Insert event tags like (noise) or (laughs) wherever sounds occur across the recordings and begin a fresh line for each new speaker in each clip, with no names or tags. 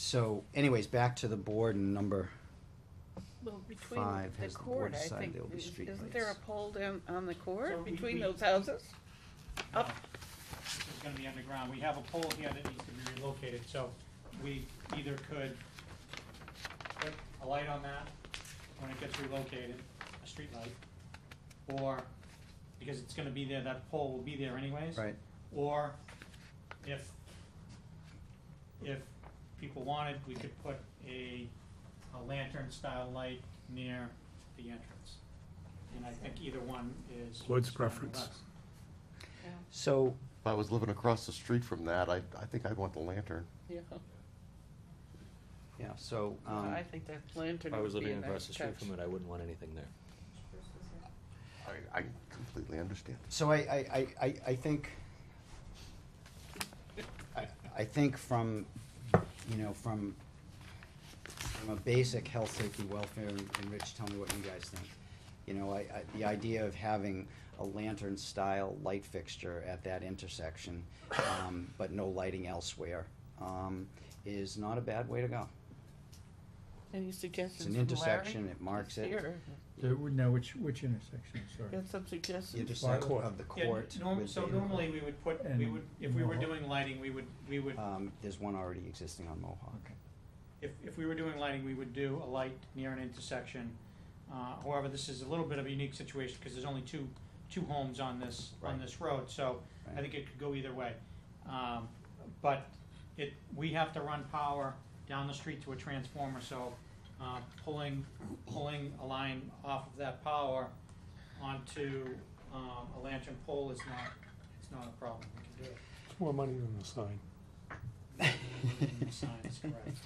So anyways, back to the board and number,
Well, between
Five
the
has the board
court, I
decided
think,
there will be
is-
street
isn't there a
lights.
pole down on the
So
court
we-
between
we-
those houses? Up.
This is gonna be underground. We have a pole here that needs to be relocated, so we either could put a light on that when it gets relocated, a street light, or, because it's gonna be there, that pole will be there anyways.
right?
Or if, if people wanted, we could put a, a lantern-style light near the entrance. And I think either one is.
Lloyd's
strong with
preference.
us.
So,
If I was living across the street from that, I, I think I'd want the lantern.
Yeah,
yeah, so, um,
I think that lantern
If I was
would be a
living across
nice
the street
touch.
from it, I wouldn't want anything there.
I, I completely understand.
so I, I, I- I, I think, I, I think from, you know, from, from a basic health, safety, welfare, and and Rich, tell me what you guys think. You know, I, I, the idea of having a lantern-style light fixture at that intersection, um, but no lighting elsewhere, um, is not a bad way to go.
Any
It's
suggestions
an
from Larry?
intersection, it marks it.
Here,
There would- No, which, which intersection, sorry?
got some suggestions?
intersection
Court.
of the
Yeah,
court.
norm-
with
so
the-
normally we would put, we
And
would, if we were
Mohawk.
doing lighting, we would, we would,
Um, there's one already existing on Mohawk.
if, if we were doing lighting, we would do a light near an intersection. Uh, however, this is a little bit of a unique situation, because there's only two, two homes on this, on
Right.
this road, so I
Right.
think it could go either way. Um, but it, we have to run power down the street to a transformer, so, uh, pulling, pulling a line off of that power onto, um, a lantern pole is not, it's not a problem, we can do it.
It's more money than the sign.
(laughs)
Science, correct.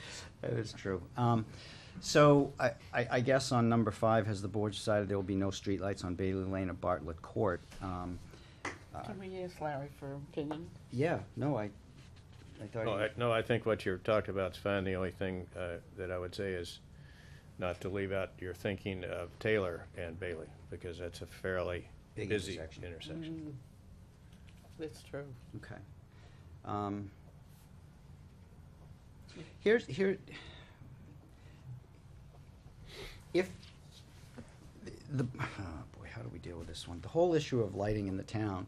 That is true. Um, so I, I, I guess on number five, has the board decided there will be no streetlights on Bailey Lane or Bartlett Court? Um, uh,
Can we ask Larry for opinion?
yeah, no, I, I thought.
No,
he-
Oh, I, no, I think what you're talking about's fine. The only thing uh, that I would say is not to leave out your thinking of Taylor and Bailey, because that's a fairly
Big
busy
intersection.
intersection.
That's true.
Okay. Um, Here's, here, if, the, (sighs) the- oh boy, how do we deal with this one? The whole issue of lighting in the town.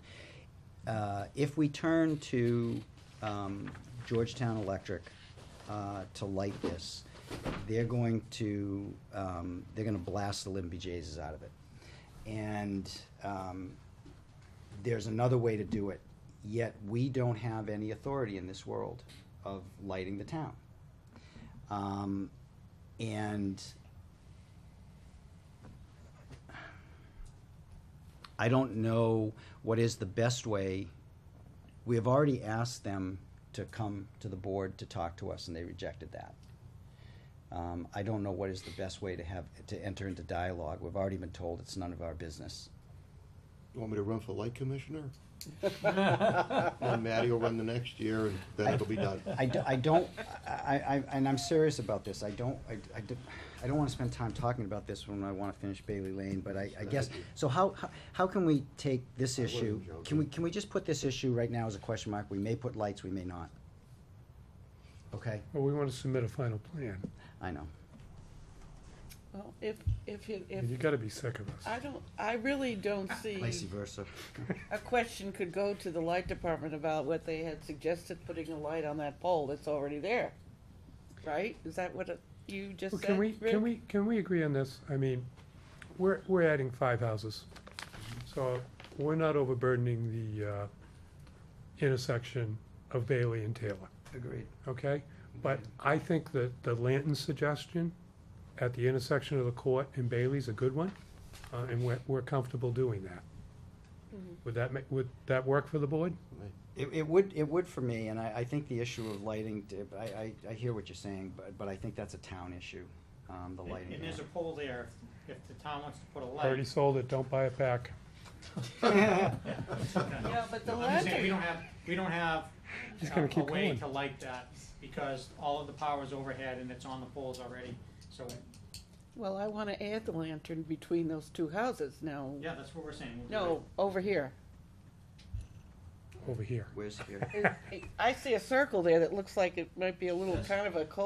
Uh, If we turn to um, Georgetown Electric uh, to light this, they're going to, um, they're gonna blast the Limby Jesus out of it. And um, there's another way to do it, yet we don't have any authority in this world of lighting the town. Um, and I don't know what is the best way. We have already asked them to come to the board to talk to us, and they rejected that. Um, I don't know what is the best way to have, to enter into dialogue. We've already been told it's none of our business.
You want me to run for light commissioner? And Matty will run the next year, and then it'll be done.
I, d- I don't, I, I, and I'm serious about this, I don't, I, I d- I don't wanna spend time talking about this when I wanna finish Bailey Lane, but I, I guess, so how, how, how can we take this
I wasn't
issue? Can
joking.
we, can we just put this issue right now as a question mark, we may put lights, we may not? Okay,
Well, we want to submit a final plan.
I know,
Well, if, if, it-
You
if,
gotta be sick of us.
I don't, I really
Ah,
don't see.
vice versa.
A question could go to the light department about what they had suggested, putting a light on that pole that's already there, right? Is that what it- you just
Well,
said?
Can we,
Rick?
can we, can we agree on this? I mean, we're, we're adding five houses. So we're not overburdening the uh, intersection of Bailey and Taylor,
(laughs) Agreed.
okay? But I think that the Lanton suggestion at the intersection of the court and Bailey's a good one, uh, and we're, we're comfortable doing that.
Mm-hmm.
Would that make, would that work for the board?
It, it would, it would for me, and I, I think the issue of lighting, d- I, I, I hear what you're saying, but, but I think that's a town issue, um, the lighting.
And and there's a pole there, if if the town wants to put a
Already
light.
sold it, don't buy it back.
Yeah, but the
No, I'm just saying,
lantern,
We don't have, we don't have
He's
uh,
gonna
a
keep
way
going.
to light that, because all of the power's overhead and it's on the poles already, so,
well, I wanna add the lantern between those two houses now.
yeah, that's what we're saying. We'll do
No, over here.
Over here.
Where's here?
I see a circle there that looks like it might be a little
Yes.
kind of a cul